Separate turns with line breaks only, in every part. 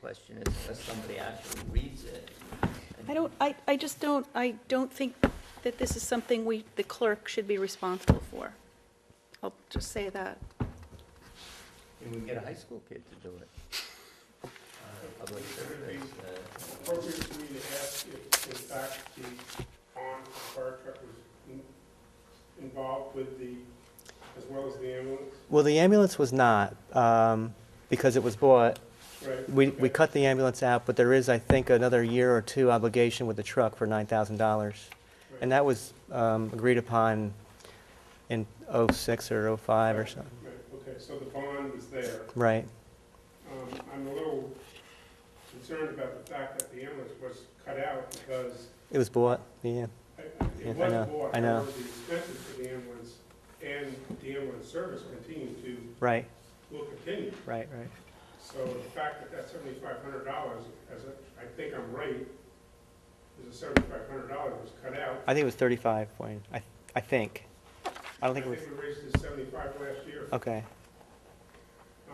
question is, unless somebody actually reads it.
I don't, I, I just don't, I don't think that this is something we, the clerk should be responsible for. I'll just say that.
And we get a high school kid to do it. Uh, Public service, uh,
appropriate for me to ask if, in fact, the armed fire truck was in- involved with the, as well as the ambulance,
Well, the ambulance was not, um, because it was bought.
right?
We,
Okay.
we cut the ambulance out, but there is, I think, another year or two obligation with the truck for nine thousand dollars. And that was, um, agreed upon in oh-six or oh-five or something,
Right, Okay, so the bond was there.
right?
Um, I'm a little concerned about the fact that the ambulance was cut out because
It was bought, yeah.
I-
Yeah, I
it was
know,
bought,
I know.
however, the expenses for the ambulance and the ambulance service continue to,
Right,
will continue.
right, right.
So the fact that that's seventy-five hundred dollars, as I, I think I'm right, is a seventy-five hundred dollars was cut out.
I think it was thirty-five, Wayne, I, I think. I don't think it was,
we raised it to seventy-five last year,
okay,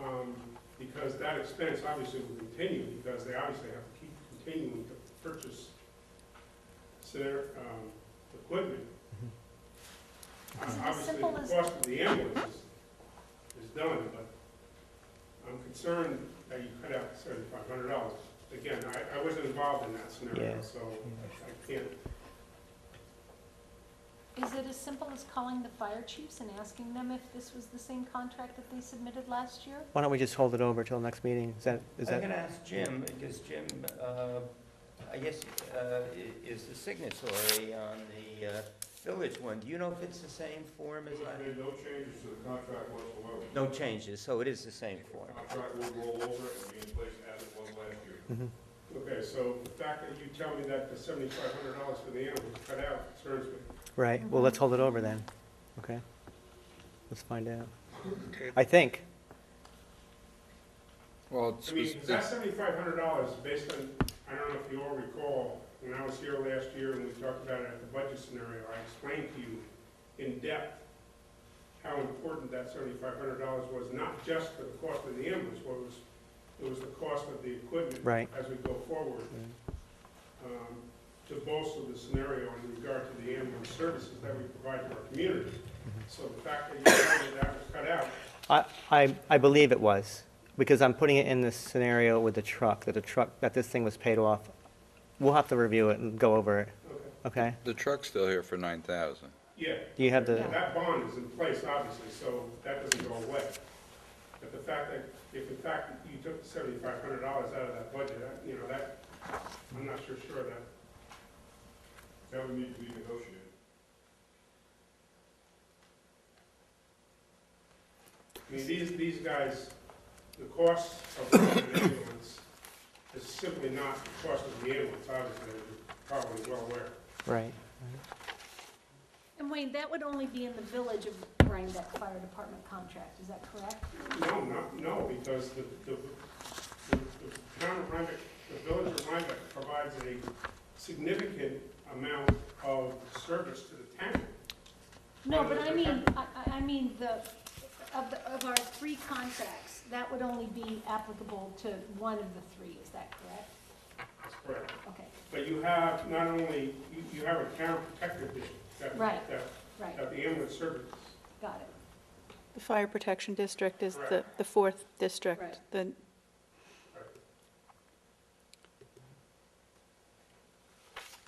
um, because that expense obviously will continue, because they obviously have to keep continuing to purchase their, um, equipment. Uh,
Is it Mm-hmm. as
Obviously,
simple as-
the cost of the ambulance is, is done, but I'm concerned that you cut out seventy-five hundred dollars. Again, I, I wasn't involved in that
Yeah.
scenario, so I I can't
Is it as simple as calling the fire chiefs and asking them if this was the same contract that they submitted last year?
why don't we just hold it over till next meeting, is that, is
I'm
that,
gonna ask Jim, because Jim, uh, I guess, uh, i- is the signatory on the uh, village one. Do you know if it's the same form as I?
There's no changes to the contract whatsoever.
No changes, so it is the same form.
The contract will roll over and be in place as it was last year. Okay, so the fact that you tell me that the seventy-five hundred dollars for the animal was cut out concerns me.
right, well, let's hold it over then, okay? Let's find out. I think,
Well, it's,
I mean,
it's-
that seventy-five hundred dollars based on, I don't know if you all recall, when I was here last year and we talked about it at the budget scenario, I explained to you in depth how important that seventy-five hundred dollars was, not just for the cost of the ambulance, but it was, it was the cost of the equipment
right,
as we go forward, um, to bolster the scenario in regard to the ambulance services that we provide to our community. So the fact that you found that that was cut out,
I, I, I believe it was, because I'm putting it in this scenario with the truck, that the truck, that this thing was paid off. We'll have to review it and go over it,
okay,
okay?
the truck's still here for nine thousand.
yeah.
Do you have the,
That bond is in place, obviously, so that doesn't go away. But the fact that, if in fact you took the seventy-five hundred dollars out of that budget, that, you know, that, I'm not sure sure of that. That would need to be negotiated. I mean, these, these guys, the cost of the ambulance is simply not the cost of the ambulance, obviously, you're probably well aware.
right,
And Wayne, that would only be in the village of Rhinebeck Fire Department contract, is that correct?
No, not, no, because the, the, the the town of Rhinebeck, the village of Rhinebeck provides a significant amount of service to the town.
No, but I mean, I, I- I mean, the, of, the- of our three contracts, that would only be applicable to one of the three, is that correct?
That's correct.
Okay,
But you have not only, you, you have a town protected that,
Right.
that,
right,
that the ambulance service.
got it.
The fire protection district is the,
Correct.
the fourth district.
Right.
The,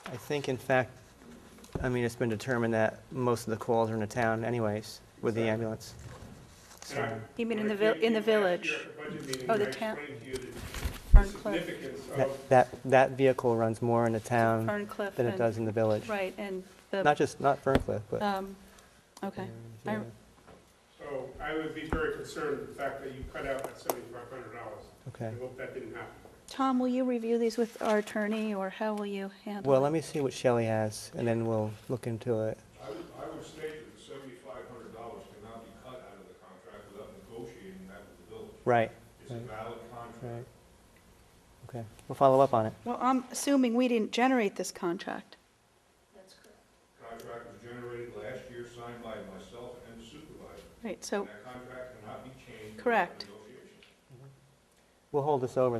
I think in fact, I mean, it's been determined that most of the calls are in the town anyways, with the ambulance.
And I-
So,
you mean in the,
when I
vil-
came
in the
to you last
village?
year at the budget meeting,
Oh, the
I
town-
explained to you the- the
Ferncliff.
significance
That,
of,
that, that vehicle runs more in the town
Ferncliff
than it
and,
does in the village.
right, and
Not
the,
just, not Ferncliff, but.
um, okay. I-
Yeah,
so I would be very concerned with the fact that you cut out that seventy-five hundred dollars. I
Okay.
hope that didn't happen.
Tom, will you review these with our attorney, or how will you handle it?
Well, let me see what Shelley has, and then we'll look into it.
I would, I would state that the seventy-five hundred dollars cannot be cut out of the contract without negotiating that with the village.
Right,
It's a
Right.
valid contract.
right. Okay, we'll follow up on it.
Well, I'm assuming we didn't generate this contract.
That's correct.
Contract was generated last year, signed by myself and the supervisor.
Right, so
That contract cannot be changed. without
Correct.
negotiation.
We'll hold this over then.